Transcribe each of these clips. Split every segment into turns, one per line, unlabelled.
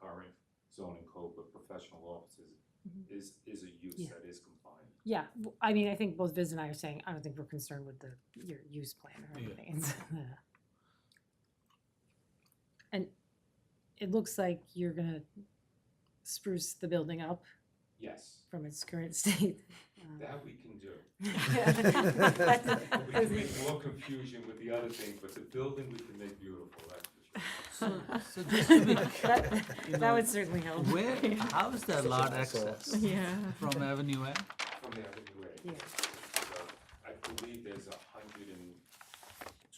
current zoning code, but professional offices
Mhm.
is, is a use
Yeah.
that is compliant.
Yeah, w- I mean, I think both Viz and I are saying, I don't think we're concerned with the, your use plan or
Yeah.
anything. It's, uh, And it looks like you're gonna spruce the building up
Yes,
from its current state. Um,
that we can do. We can
But-
make more confusion with the other thing, but the building we can make beautiful, that's for sure.
So, so just to be
That
you
that
know,
would certainly help.
where, how is that lot access
Yeah.
from Avenue A?
From the Avenue A.
Yeah.
So I believe there's a hundred and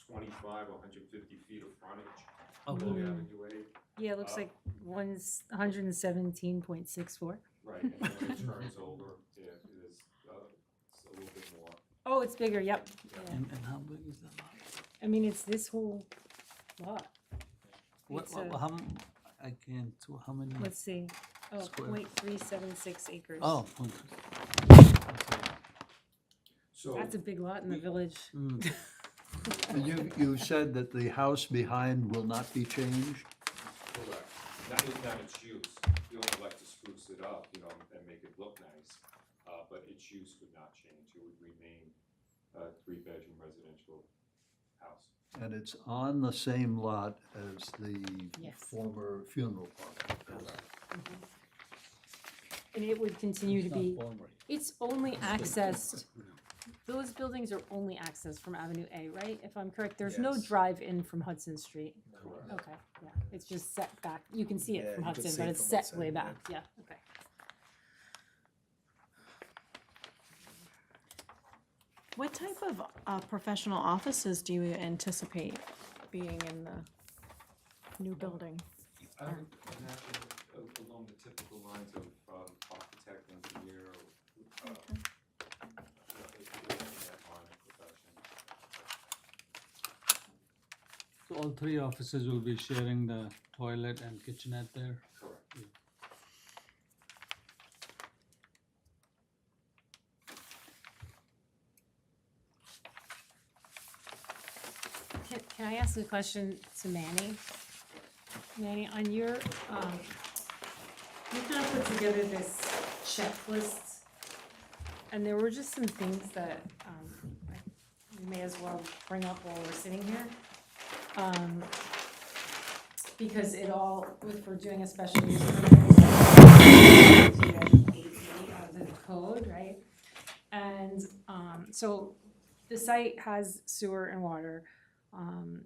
twenty-five, a hundred and fifty feet of frontage
Okay,
along
Mhm.
Avenue A.
Yeah, it looks
Uh,
like one's hundred and seventeen point six four.
Right, and then when it turns over, yeah, it is, uh, it's a little bit more.
Oh, it's bigger, yep.
Yeah.
Yeah.
and, and how big is that lot?
I mean, it's this whole lot.
What,
It's
what,
a-
how, m- I can't, so how
Hmm.
many?
Let's see, oh,
Square.
point three seven six acres.
Oh. okay.
So,
That's a big lot in the
Hmm.
we-
village.
Mm.
You, you said that the house behind will not be changed?
correct, that is not its use, we only like to spruce it up, you know, and make it look nice. Uh, but its use would not change, it would remain a three-bedroom residential house.
And it's on the same lot as the
Yes.
former funeral parlor?
Mm-hmm. And it would continue to
It's not
be,
former.
it's only accessed, those buildings are only accessed from Avenue A, right? If I'm correct, there's no
Yes.
drive-in from Hudson Street.
Correct.
Okay, yeah, it's just set back, you can see
Yeah,
it
you
from
can
Hudson,
see
but
it
it's
from
set way
Hudson, yeah.
back, yeah, okay.
What type of uh, professional offices do you anticipate being in the new building?
I would imagine a- along the typical lines of, um, architect, engineer, uh, you know, if you're in that line of profession.
So all three offices will be sharing the toilet and kitchenette there?
Correct.
Can, can I ask a question to Manny? Manny, on your, um, you kind of put together this checklist, and there were just some things that, um, I- we may as well bring up while we're sitting here. Um, because it all, if we're doing a special use permit, it's 18 of the code, right? And, um, so the site has sewer and water. Um,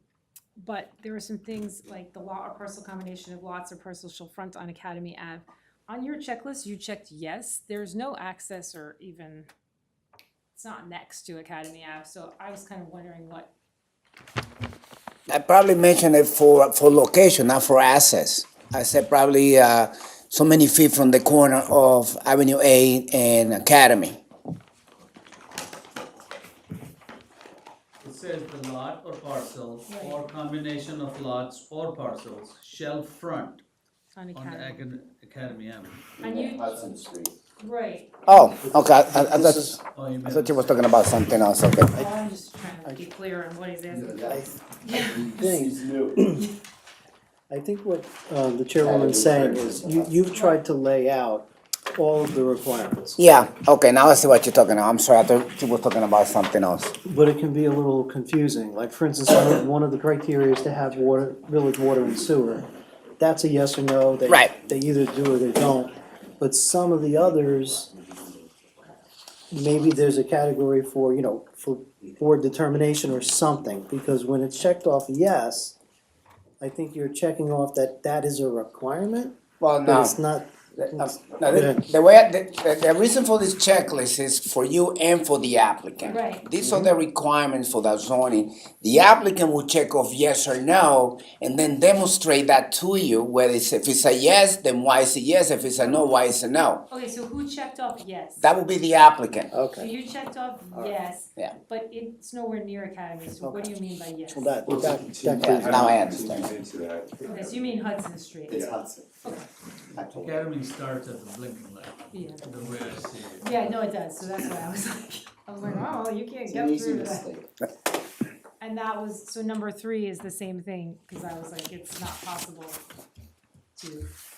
but there are some things like the lot or parcel combination of lots or parcels shall front on Academy Ave. On your checklist, you checked yes, there's no access or even, it's not next to Academy Ave, so I was kind of wondering what,
I probably mentioned it for, for location, not for access. I said probably, uh, so many feet from the corner of Avenue A and Academy.
It says the lot or parcel or combination of lots or parcels shall front
on
on the
Academy.
acad- Academy Avenue.
And you,
Hudson Street.
right,
Oh, okay, I, I, I
This
thought-
is-
Oh, you
I
meant-
thought you was talking about something else, okay.
well, I'm just trying to be clear on what he's asking.
think, I think what uh, the chairwoman's saying is, you, you've tried to lay out all of the requirements,
Yeah, okay, now I see what you're talking about. I'm sorry, I thought you were talking about something else.
but it can be a little confusing. Like, for instance, one of- one of the criteria is to have water, village water and sewer. That's a yes or no. They-
Right.
They either do or they don't. But some of the others, maybe there's a category for, you know, for board determination or something. Because when it's checked off yes, I think you're checking off that that is a requirement.
Well,
But
no,
it's not,
no,
Yeah.
the, the way, I- the, the reason for this checklist is for you and for the applicant.
Right.
These are the requirements for that zoning. The applicant will check off yes or no and then demonstrate that to you, whether it's, if it's a yes, then why is it yes? If it's a no, why is it no?
Okay, so who checked off yes?
That will be the applicant.
So
okay,
you checked off yes,
Yeah.
but it's nowhere near Academy, so what do you mean by yes?
well, that, that, that
Yeah, now I understand.
Continues into that.
Okay, so you mean Hudson Street?
Academy starts at the blinking light,
Yeah.
the way I see it.
Yeah, no, it does, so that's why I was like, I was like, oh, you can't get through that. And that was, so number three is the same thing, cause I was like, it's not possible to